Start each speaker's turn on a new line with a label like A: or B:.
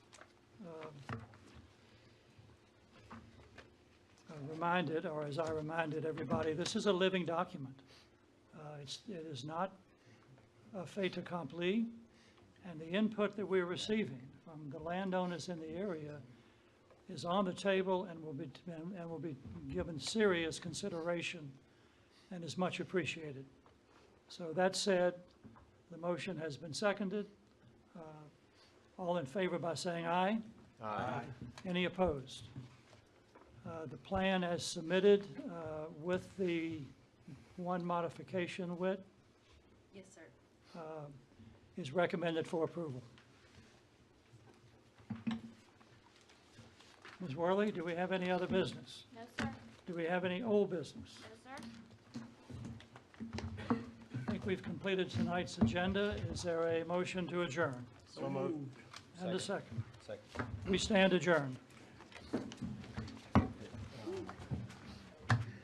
A: Uh, reminded, or as I reminded everybody, this is a living document. Uh, It's, it is not a fait accompli, and the input that we're receiving from the landowners in the area is on the table and will be, and and will be given serious consideration and is much appreciated. So that said, the motion has been seconded. Uh, All in favor by saying aye?
B: Aye.
A: Any opposed? Uh, The plan as submitted uh, with the one modification, Whit,
C: Yes, sir.
A: uh, is recommended for approval. Ms. Worley, do we have any other business?
C: No, sir.
A: Do we have any old business?
C: No, sir.
A: I think we've completed tonight's agenda. Is there a motion to adjourn?
B: So moved.
A: And a
B: Second.
A: second.
B: Second.
A: We stand adjourned.